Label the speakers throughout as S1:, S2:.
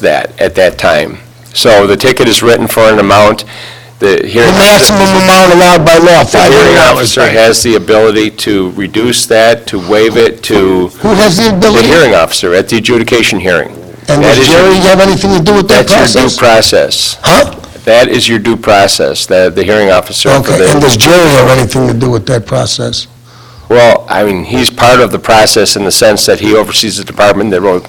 S1: that at that time. So the ticket is written for an amount, the hearing...
S2: The maximum amount allowed by law,
S1: The
S2: five hundred
S1: hearing
S2: dollars.
S1: officer has the ability to reduce that, to waive it, to...
S2: Who has the
S1: The
S2: ability?
S1: hearing officer at the adjudication hearing.
S2: And
S1: That
S2: does
S1: is your-
S2: Jerry have anything to do with that
S1: That's your
S2: process?
S1: due process.
S2: Huh?
S1: That is your due process, the, the hearing officer for
S2: Okay, and
S1: the...
S2: does Jerry have anything to do with that process?
S1: Well, I mean, he's part of the process in the sense that he oversees the department that wrote,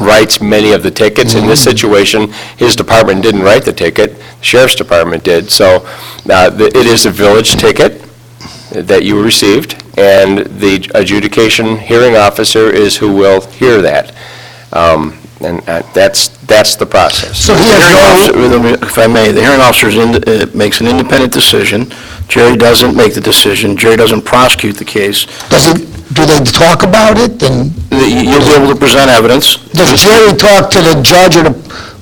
S1: writes many of the tickets. In
S2: Mm-hmm.
S1: this situation, his department didn't write the ticket, the sheriff's department did. So uh, the- it is a village ticket that you received, and the adjudication hearing officer is who will hear that. Um, And uh, that's, that's the process.
S2: So he
S3: The hearing
S2: has no,
S3: officer- If I may, the hearing officer makes an independent decision. Jerry doesn't make the decision. Jerry doesn't prosecute the case.
S2: does it, do they talk about it? And
S3: The- You'll be able to present evidence.
S2: does Jerry talk to the judge or the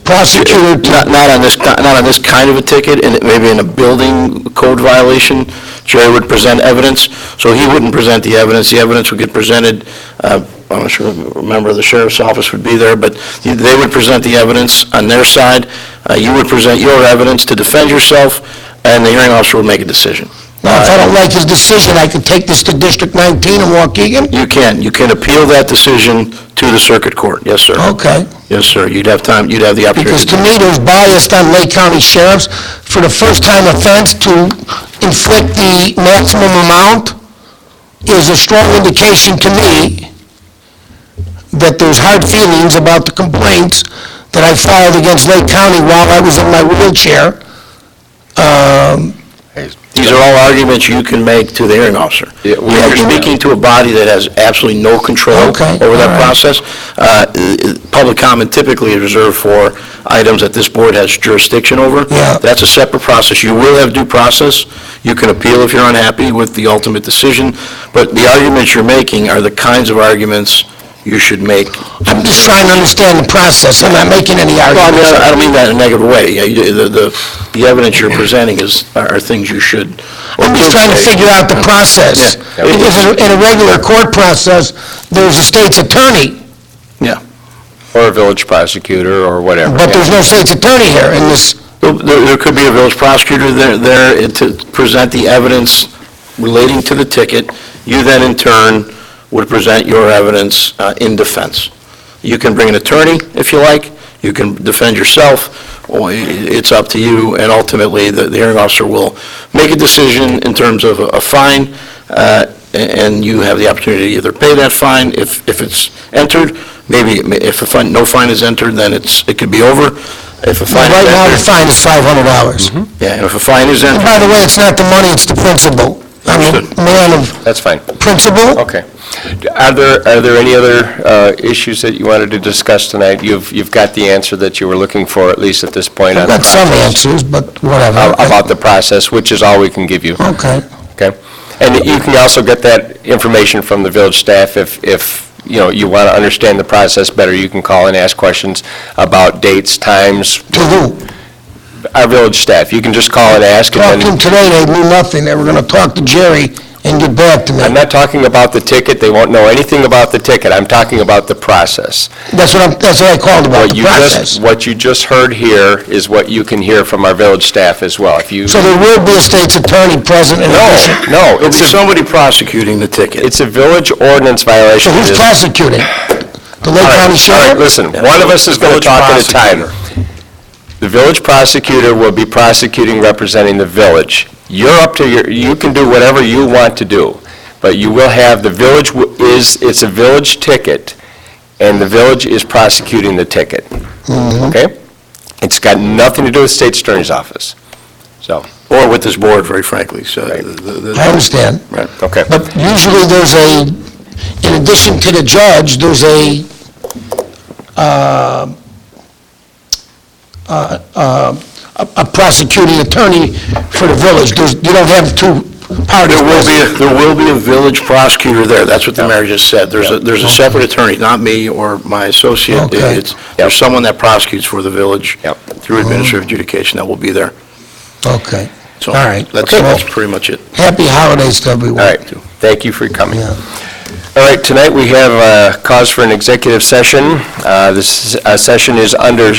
S2: prosecutor? to-
S3: Not not on this, not not on this kind of a ticket, and it may be in a building code violation. Jerry would present evidence, so he wouldn't present the evidence. The evidence would get presented, uh, I'm not sure, remember, the sheriff's office would be there, but they would present the evidence on their side. Uh, You would present your evidence to defend yourself, and the hearing officer would make a decision.
S2: Now, if I don't like his decision, I can take this to District 19 in Waukegan?
S3: You can, you can appeal that decision to the circuit court, yes, sir.
S2: Okay.
S3: Yes, sir, you'd have time, you'd have the opportunity.
S2: Oh. Because
S3: to
S2: to me, there's bias on Lake County sheriffs for the first-time offense to inflict the maximum amount is a strong indication to me that there's hard feelings about the complaints that I filed against Lake County while I was in my wheelchair. Um,
S3: These are all arguments you can make to the hearing officer.
S1: Yeah, we
S3: You're
S1: understand.
S3: speaking to a body that has absolutely no control
S2: Okay,
S3: over
S2: all
S3: that
S2: right.
S3: process. Uh, i- i- Public comment typically is reserved for items that this board has jurisdiction over.
S2: Yeah.
S3: That's a separate process. You will have due process. You can appeal if you're unhappy with the ultimate decision, but the arguments you're making are the kinds of arguments you should make.
S2: I'm just trying to understand the process. I'm not making any
S3: Well, I mean,
S2: arguments.
S3: I don't mean that in a negative way. Yeah, you- The the- the evidence you're presenting is, are are things you should.
S2: I'm just trying to figure out the process.
S3: Yeah.
S2: Because in a- in a regular court process, there's a state's attorney,
S3: Yeah.
S1: Or a village prosecutor, or whatever.
S2: but there's no state's attorney here in this
S3: There- There there could be a village prosecutor there- there to present the evidence relating to the ticket. You then, in turn, would present your evidence uh, in defense. You can bring an attorney, if you like, you can defend yourself, or i- it's up to you, and ultimately, the the hearing officer will make a decision in terms of a- a fine, uh, a- and you have the opportunity to either pay that fine if if it's entered, maybe if a fine, no fine is entered, then it's, it could be over. If a fine is
S2: Right now, the
S3: entered...
S2: fine is five hundred dollars. And
S1: Mm-hmm.
S3: Yeah, and if a fine is entered...
S2: by the way, it's not the money, it's the principle. I'm a
S3: Understood.
S2: man of
S1: That's fine.
S2: principle.
S1: Okay. Are there, are there any other uh, issues that you wanted to discuss tonight? You've, you've got the answer that you were looking for, at least at this point, on
S2: I've
S1: the
S2: got some
S1: process.
S2: answers, but whatever.
S1: Ab- About the process, which is all we can give you,
S2: Okay.
S1: okay? And you can also get that information from the village staff if, if, you know, you want to understand the process better, you can call and ask questions about dates, times,
S2: To who?
S1: our village staff. You can just call and ask, and
S2: Talking
S1: then,
S2: today, they knew nothing. They were gonna talk to Jerry and get back to
S1: I'm
S2: me.
S1: not talking about the ticket, they won't know anything about the ticket, I'm talking about the process.
S2: That's what I'm, that's what I called about,
S1: What
S2: the
S1: you just,
S2: process.
S1: what you just heard here is what you can hear from our village staff as well. If you,
S2: So there will be a state's attorney present in
S1: no,
S2: addition.
S1: no,
S3: It'll be
S1: it's a,
S3: somebody prosecuting the ticket.
S1: it's a village ordinance violation.
S2: So who's
S1: It is-
S2: prosecuting? The
S1: All
S2: Lake
S1: right,
S2: County
S1: all right,
S2: Sheriff?
S1: Listen, one of us is going to
S3: Village
S1: talk at a time. The village prosecutor will be prosecuting representing the village. You're up to your, you can do whatever you want to do, but you will have, the village w- is, it's a village ticket, and the village is prosecuting the ticket, okay? It's got nothing to do with state attorney's office, so,
S3: Or with this board, very frankly, so... the- the-
S2: I understand.
S3: Right.
S1: okay.
S2: But usually there's a, in addition to the judge, there's a, um, uh, uh, a a prosecuting attorney for the village. There's, you don't have two parties.
S3: There will
S2: present.
S3: be, a- there will be a village prosecutor there, that's what the mayor just said. There's a, there's a separate attorney, not me or my associate.
S2: Okay. Mm-hmm.
S3: It's, there's someone that prosecutes for the village
S1: Yep.
S3: through administrative adjudication that will be there.
S2: Okay.
S3: So
S2: All right.
S3: That's,
S2: Okay, well,
S3: that's pretty much it.
S2: Happy holidays to everyone.
S1: All right, thank you for coming.
S2: Yeah.
S1: All right, tonight we have uh cause for an executive session. Uh, This uh, session is under